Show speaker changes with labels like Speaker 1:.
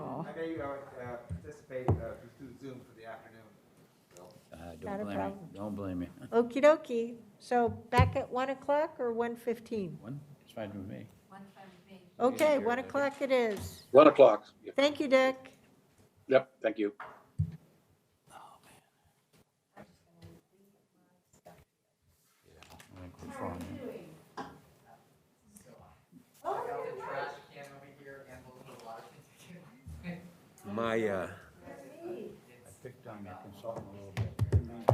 Speaker 1: all.
Speaker 2: I know you are, uh, participate uh, through Zoom for the afternoon, Bill.
Speaker 3: Uh,
Speaker 1: Not
Speaker 3: Don't
Speaker 1: a
Speaker 3: blame me,
Speaker 1: problem.
Speaker 3: don't blame me.
Speaker 1: Okey dokey. So back at 1 o'clock or 1:15?
Speaker 3: One, it's fine with me.
Speaker 1: Okay,
Speaker 3: Yeah,
Speaker 1: 1
Speaker 3: okay.
Speaker 1: o'clock it is.
Speaker 4: One o'clock. Yep,
Speaker 1: Thank you, Dick.
Speaker 4: Yep, thank you.
Speaker 3: I think we're fine.
Speaker 5: trash can over here and a little water.
Speaker 6: My, uh,
Speaker 3: I picked on your consultant a